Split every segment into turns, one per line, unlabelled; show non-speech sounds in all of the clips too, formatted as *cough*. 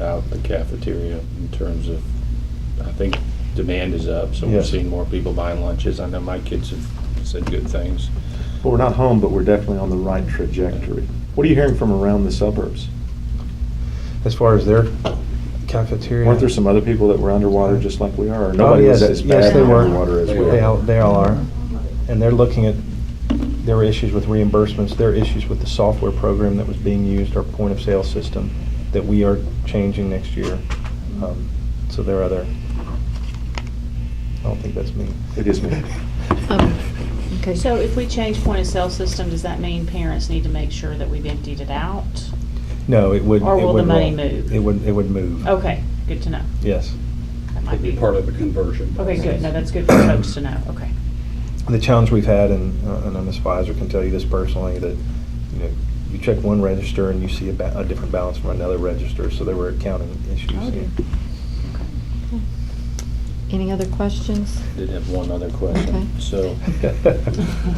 out the cafeteria in terms of, I think demand is up, so we're
Yes.
seeing more people buying lunches. I know my kids have said good things.
Well, we're not home, but we're definitely on the right trajectory. What are you hearing from around the suburbs?
as far as their cafeteria.
Weren't there some other people that were underwater just like we are? Or Nobody
yeah,
was
that-
as
Oh, yes,
bad
they were.
underwater as we
They all,
are.
they all are. And they're looking at their issues with reimbursements, their issues with the software program that was being used, our point of sale system that we are changing next year. Um, So there are other, I don't think that's me. *laughs*
It is me.
Um, Okay,
So
so,
if we change point of sale system, does that mean parents need to make sure that we've emptied it out?
No, it would.
Or
it
will
would
the money
roll.
move?
It would, it would move.
Okay, good to know.
Yes.
That might
It'd be part of the conversion.
Okay, good. No, that's
*coughs*
good for folks to know. Okay.
the challenge we've had, and, uh, and Ms. Visor can tell you this personally, that, you know, you check one register and you see a, ba- a different balance from another register, so there were accounting issues. *laughs*
Oh, dear.
any other questions?
Did have one other
Okay.
question. So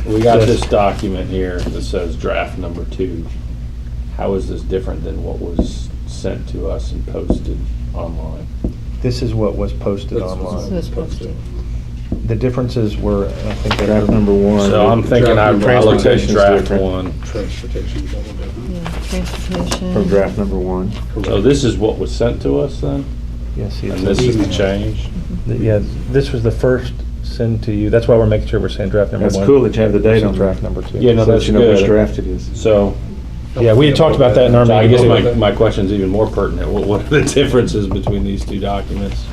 we got this document here that says draft number two. How is this different than what was sent to us and posted online?
This is what was posted
That's what's
online.
This was posted.
The differences were, I think. that-
Draft number one.
So I'm thinking I I looked at
Transportation's
draft
different
one.
Transportation is a little different.
Yeah, transportation.
From draft number one.
So Oh, this is what was sent to us then?
Yes. see,
And
it's-
this is the
email.
change?
Mm-hmm.
Yeah, this was the first send to you. That's why we're making sure we're saying draft number one.
That's cool that you have the date on
Draft
draft.
number two.
Yeah, no,
So that you
that's
know which
good.
draft it is.
So
Yeah, we had talked about that in our
So I guess
meeting.
my,
too.
my question's even more pertinent. What, what are the *laughs* differences between these two documents?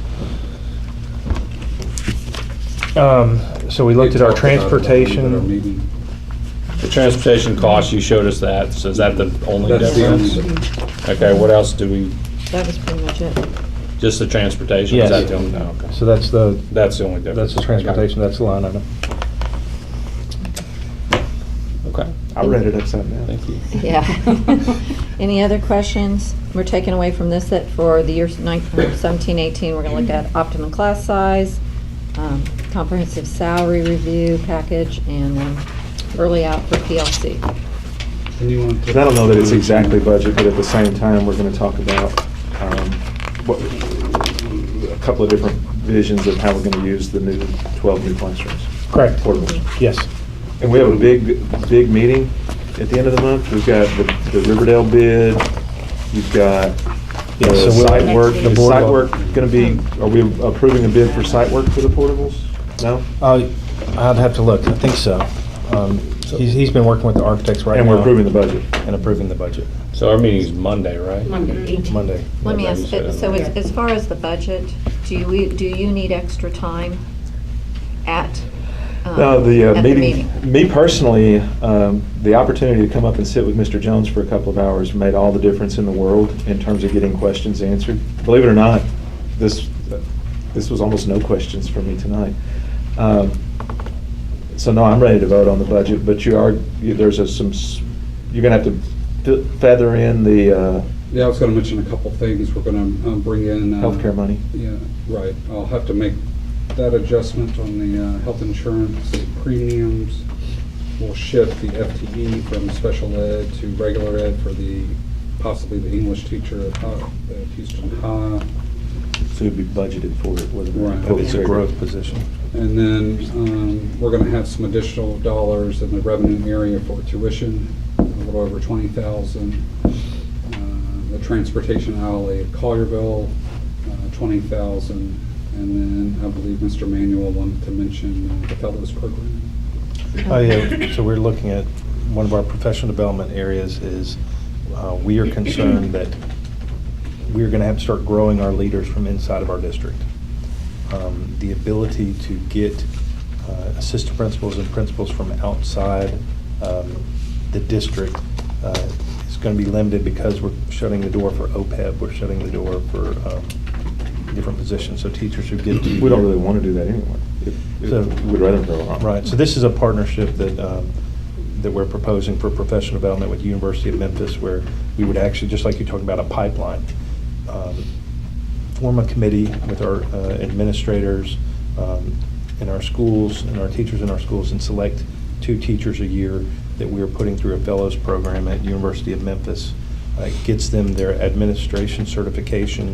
Um, so we looked at our
Talked about it at our
transportation.
meeting.
The transportation costs, you showed us that, so is that the only
That's the only
difference?
difference.
Okay, what else do we,
That was pretty much it.
just the transportation? Is
Yes.
that the only, no, okay.
So that's the,
That's the only difference.
that's the transportation, that's the line item.
Okay,
I read it upside down.
thank you.
Yeah. *laughs* Any other questions? We're taking away from this that for the years 19 17, 18, we're going to look at optimum class size, um, comprehensive salary review package, and then early out for PLC.
And you want to-
And I don't know that it's exactly budget, but at the same time, we're gonna talk about, um, what, a couple of different visions of how we're gonna use the new, twelve new classrooms.
Correct.
Portables.
Yes.
And we have a big, big meeting at the end of the month. We've got the- the Riverdale bid, you've got
Yeah, so
the
we'll-
site work.
Next
Is
week.
site work gonna be, are we approving a bid for site work for the portables? No?
Uh, I'd have to look, I think so. Um, He's, he's been working with the architects right now.
And we're approving the budget.
And approving the budget,
So our meeting's Monday, right?
Monday.
Let me
Yeah,
ask,
you said
so
it.
as as far as the budget, do you, do you need extra time at? um,
No, the uh,
at
meeting, me personally, um, the opportunity to come up and sit with Mr. Jones for a couple of hours made all the difference in the world in terms of getting questions answered. Believe it or not, this, this was almost no questions for me tonight. Um, So no, I'm ready to vote on the budget, but you are, you- there's a some, s- you're gonna have to fe- feather in the uh,
Yeah, I was going to mention a couple things. We're going to bring in. uh,
healthcare money.
Yeah, right. I'll have to make that adjustment on the uh, health insurance premiums. We'll shift the FTE from special ed to regular ed for the, possibly the English teacher at Ho- at Houston High.
So it'd be budgeted for it, whether.
Right.
But It's a growth position.
And then um, we're going to have some additional dollars in the revenue area for tuition, a little over 20,000. Uh, The transportation alley at Collierville, uh, 20,000. And then I believe Mr. Manuel wanted to mention uh, the fellows program.
Oh, yeah, so we're looking at, one of our professional development areas is, uh, we are concerned that we're gonna have to start growing our leaders from inside of our district. Um, The ability to get uh, assistant principals and principals from outside um, the district uh, is gonna be limited because we're shutting the door for OPEB, we're shutting the door for um, different positions, so teachers who get to.
We don't really want to do that anyway. If- if-
So-
We'd rather go on.
Right, so this is a partnership that, um, that we're proposing for professional development with University of Memphis, where we would actually, just like you're talking about a pipeline, um, form a committee with our uh, administrators um, in our schools, and our teachers in our schools, and select two teachers a year that we are putting through a fellows program at University of Memphis uh, gets them their administration certification